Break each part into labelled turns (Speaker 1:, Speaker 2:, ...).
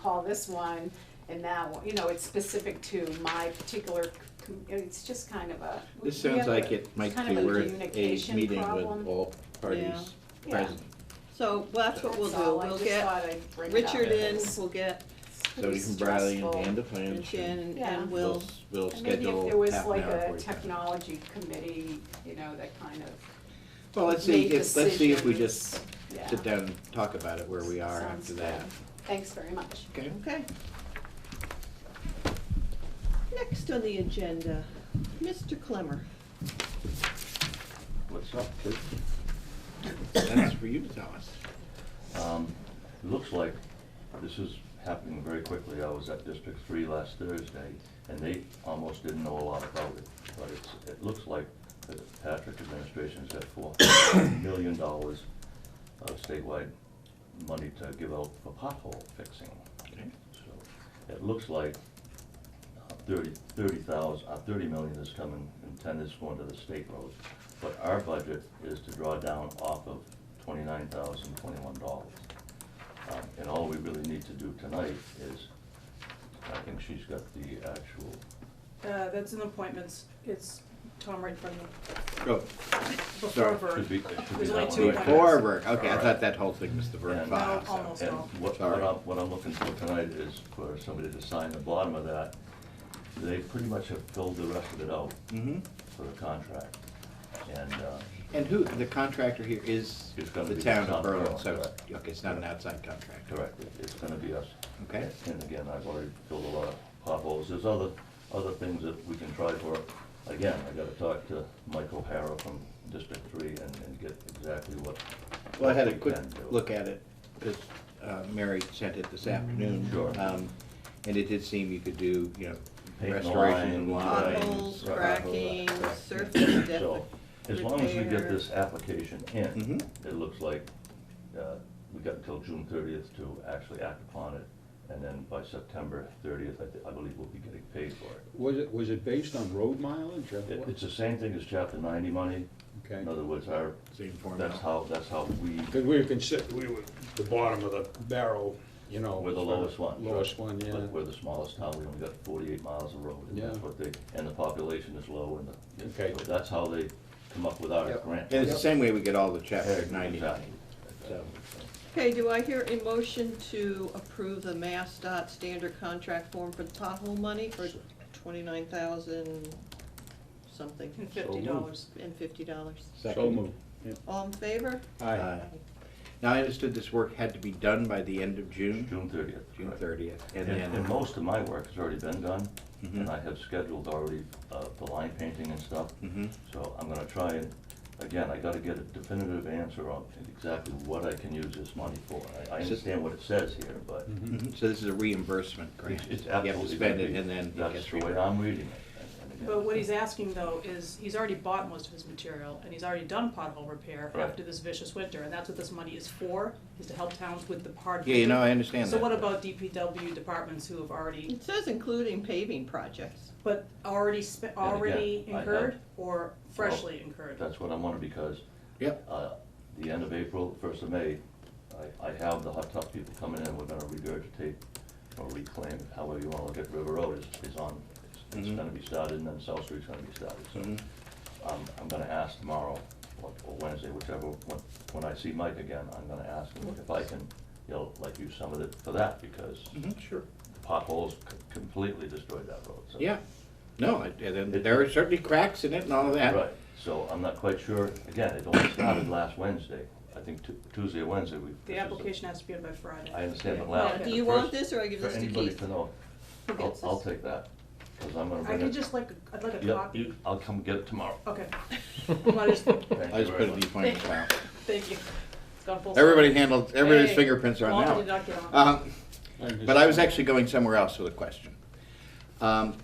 Speaker 1: call this one and that one, you know, it's specific to my particular, com- it's just kind of a. we-
Speaker 2: This
Speaker 1: we
Speaker 2: sounds
Speaker 1: have a-
Speaker 2: like it might
Speaker 1: kind
Speaker 2: be
Speaker 1: of a
Speaker 2: worth a
Speaker 1: communication
Speaker 2: meeting
Speaker 1: problem.
Speaker 2: with all
Speaker 3: Yeah.
Speaker 2: parties
Speaker 1: Yeah.
Speaker 2: present.
Speaker 3: So, well, that's what we'll
Speaker 1: That's all.
Speaker 3: do,
Speaker 1: I
Speaker 3: we'll
Speaker 1: just
Speaker 3: get
Speaker 1: thought I'd bring it up.
Speaker 3: Richard in,
Speaker 1: It's
Speaker 3: we'll get
Speaker 2: So
Speaker 1: pretty
Speaker 2: you can Bradley and
Speaker 1: stressful.
Speaker 2: Dan to plan.
Speaker 3: and Shannon,
Speaker 1: Yeah.
Speaker 3: and we'll,
Speaker 2: s- We'll
Speaker 1: And maybe if
Speaker 2: schedule
Speaker 1: there was
Speaker 2: half an
Speaker 1: like
Speaker 2: hour
Speaker 1: a
Speaker 2: for you.
Speaker 1: technology committee, you know, that kind of
Speaker 2: Well, let's see,
Speaker 1: made
Speaker 2: if, let's see if we just
Speaker 1: decisions. Yeah.
Speaker 2: sit down and talk about it where we are
Speaker 1: Sounds
Speaker 2: after that.
Speaker 1: good. Thanks very much.
Speaker 2: Okay?
Speaker 3: okay. Next on the agenda, Mr. Clemmer.
Speaker 2: What's up, kid? That's for you to tell us.
Speaker 4: Um, It looks like this is happening very quickly. I was at District Three last Thursday, and they almost didn't know a lot about it. But it's, it looks like the Patrick administration's got four million dollars of statewide money to give out for pothole fixing.
Speaker 2: Okay.
Speaker 4: So It looks like uh, thirty, thirty thousand, uh, thirty million is coming and ten is going to the state road. But our budget is to draw down off of twenty-nine thousand, twenty-one dollars. Um, and all we really need to do tonight is, I think she's got the actual,
Speaker 5: Uh, that's an appointments, it's Tom right from
Speaker 2: Go.
Speaker 5: before
Speaker 2: Sorry.
Speaker 5: Vern.
Speaker 4: should be, it should be that one.
Speaker 5: There's
Speaker 4: right
Speaker 5: only two appointments.
Speaker 4: there.
Speaker 2: Before work, okay, I
Speaker 4: Alright.
Speaker 2: thought that whole thing was the Vern
Speaker 4: And-
Speaker 2: Five.
Speaker 5: No, almost
Speaker 4: And
Speaker 5: all.
Speaker 4: what, what
Speaker 2: Sorry.
Speaker 4: I'm, what I'm looking for tonight is for somebody to sign the bottom of that. They pretty much have filled the rest of it out
Speaker 2: Mm-hmm.
Speaker 4: for the contract. And, uh,
Speaker 2: And who, the contractor here is
Speaker 4: It's gonna
Speaker 2: the
Speaker 4: be
Speaker 2: town
Speaker 4: South
Speaker 2: of Berlin,
Speaker 4: Berlin,
Speaker 2: so,
Speaker 4: correct.
Speaker 2: okay, it's not an outside contractor.
Speaker 4: Correct, It- it's gonna be us.
Speaker 2: Okay.
Speaker 4: And again, I've already filled a lot of potholes, there's other, other things that we can try for. Again, I gotta talk to Mike O'Hara from District Three and, and get exactly what.
Speaker 2: Well, I had a
Speaker 4: what we
Speaker 2: quick
Speaker 4: can do.
Speaker 2: look at it, Mm-hmm. because Mary sent it this afternoon.
Speaker 4: Sure.
Speaker 2: Um, And it did seem you could do, you know,
Speaker 4: Paint the
Speaker 2: restoration and
Speaker 4: line,
Speaker 2: lines.
Speaker 3: Potholes,
Speaker 4: right,
Speaker 3: cracking,
Speaker 4: right, right.
Speaker 3: surface depth.
Speaker 4: So, as long as we get
Speaker 3: repair.
Speaker 4: this application in,
Speaker 2: Mhm.
Speaker 4: it looks like, uh, we got until June thirtieth to actually act upon it. And then by September thirtieth, I, thi- I believe we'll be getting paid for it.
Speaker 6: Was it, was it based on road mileage or
Speaker 4: It,
Speaker 6: what?
Speaker 4: it's the same thing as chapter ninety money.
Speaker 6: Okay.
Speaker 4: In other words, our,
Speaker 2: Same formula.
Speaker 4: that's how, that's how we,
Speaker 6: Because we were consider, we were the bottom of the barrel, you know.
Speaker 4: we're the
Speaker 6: for-
Speaker 4: lowest one. sure.
Speaker 6: Lowest one, yeah.
Speaker 4: But We're the smallest town, we only got forty-eight miles of road, and that's
Speaker 6: Yeah.
Speaker 4: what they, and the population is low, and the,
Speaker 6: Okay.
Speaker 4: so that's how they come up with our
Speaker 2: Yep.
Speaker 4: grant.
Speaker 2: And it's the same way we get all the chapter
Speaker 4: Exactly.
Speaker 2: ninety. So,
Speaker 3: Okay, do I hear a motion to approve the Mass dot standard contract form for the pothole money for twenty-nine thousand something
Speaker 1: And
Speaker 6: So
Speaker 1: fifty
Speaker 6: moved.
Speaker 1: dollars.
Speaker 3: and fifty dollars?
Speaker 6: So
Speaker 2: second.
Speaker 6: moved. Yeah.
Speaker 3: All in favor?
Speaker 2: Aye. Now, I understood this work had to be done by the end of June,
Speaker 4: June thirtieth.
Speaker 2: June thirtieth, and
Speaker 4: And, and
Speaker 2: then, mm-hmm.
Speaker 4: most of my work has already been done,
Speaker 2: Mhm.
Speaker 4: and I have scheduled already, uh, the line painting and stuff.
Speaker 2: Mhm.
Speaker 4: So I'm gonna try and, again, I gotta get a definitive answer on exactly what I can use this money for. I, I
Speaker 2: So-
Speaker 4: understand what it says here, but
Speaker 2: Mhm. so this is a reimbursement grant.
Speaker 4: it's, it's
Speaker 2: You have to
Speaker 4: absolutely gonna
Speaker 2: spend it,
Speaker 4: be-
Speaker 2: and then it
Speaker 4: That's
Speaker 2: gets
Speaker 4: the way
Speaker 2: reimbursed.
Speaker 4: I'm reading it. and- and again,
Speaker 5: But what he's asking though is, he's already bought most of his material and he's already done pothole repair
Speaker 4: Right.
Speaker 5: after this vicious winter, and that's what this money is for, is to help towns with the hard.
Speaker 2: Yeah, you know, I
Speaker 5: winter.
Speaker 2: understand that.
Speaker 5: So what about DPW departments who have already,
Speaker 3: It says including paving projects.
Speaker 5: but already spent,
Speaker 4: again,
Speaker 5: already
Speaker 4: I have-
Speaker 5: incurred or freshly incurred?
Speaker 4: That's what I wanna, because
Speaker 2: Yep.
Speaker 4: uh, the end of April, first of May, I, I have the hot tub people coming in, we're gonna regurgitate or reclaim, however you wanna look at River Road is, is on, it's- it's
Speaker 2: Mhm.
Speaker 4: gonna be started, and then South Street's gonna be started,
Speaker 2: Mhm.
Speaker 4: so. I'm, I'm gonna ask tomorrow, or or Wednesday, whichever, when, when I see Mike again, I'm gonna ask him if I can, you know, like use some of it for that, because
Speaker 2: Mhm, Sure.
Speaker 4: potholes c- completely destroyed that road, so.
Speaker 2: Yeah, no, it- and then there are certainly cracks in it and all of that.
Speaker 4: Right, so I'm not quite sure, again, it only started last Wednesday, I think Tu- Tuesday, or Wednesday, we. this
Speaker 5: The
Speaker 4: is
Speaker 5: application has to be in by Friday.
Speaker 4: I understand, but
Speaker 2: Yeah.
Speaker 4: last.
Speaker 3: Now,
Speaker 5: Okay.
Speaker 3: do you want this or I give
Speaker 4: For
Speaker 3: this to
Speaker 4: anybody
Speaker 3: Keith?
Speaker 4: to know,
Speaker 3: Who
Speaker 4: I'll,
Speaker 3: gets
Speaker 4: I'll
Speaker 3: this?
Speaker 4: take that, cause I'm gonna
Speaker 5: I
Speaker 4: bring it.
Speaker 5: could just Oh. like, a- I'd like a
Speaker 4: Yep,
Speaker 5: copy.
Speaker 4: you- I'll come get it tomorrow.
Speaker 5: Okay. Well, I just-
Speaker 4: Thank
Speaker 2: I
Speaker 4: you
Speaker 2: just
Speaker 4: very
Speaker 2: put it in
Speaker 4: much.
Speaker 2: the appointment file.
Speaker 5: Thank you. It's gone full.
Speaker 2: Everybody
Speaker 5: circle.
Speaker 2: handled, everybody's
Speaker 5: Hey,
Speaker 2: fingerprints are on
Speaker 5: Walter
Speaker 2: that
Speaker 5: did
Speaker 2: one.
Speaker 5: not get on.
Speaker 2: Um,
Speaker 6: I'm
Speaker 2: But I was
Speaker 6: just-
Speaker 2: actually going somewhere else with a question. Um,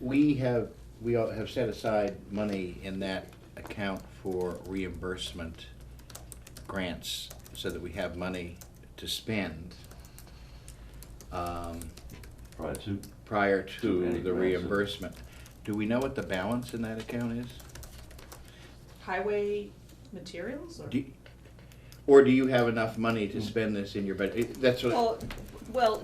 Speaker 2: We have, we all have set aside money in that account for reimbursement grants so that we have money to spend um,
Speaker 4: Prior to,
Speaker 2: prior
Speaker 4: To any
Speaker 2: to the
Speaker 4: grants.
Speaker 2: reimbursement. Do we know what the balance in that account is?
Speaker 5: Highway materials or?
Speaker 2: Do Hmm. you- Or do you have enough money to spend this in your budget? That's what.
Speaker 3: Well, well,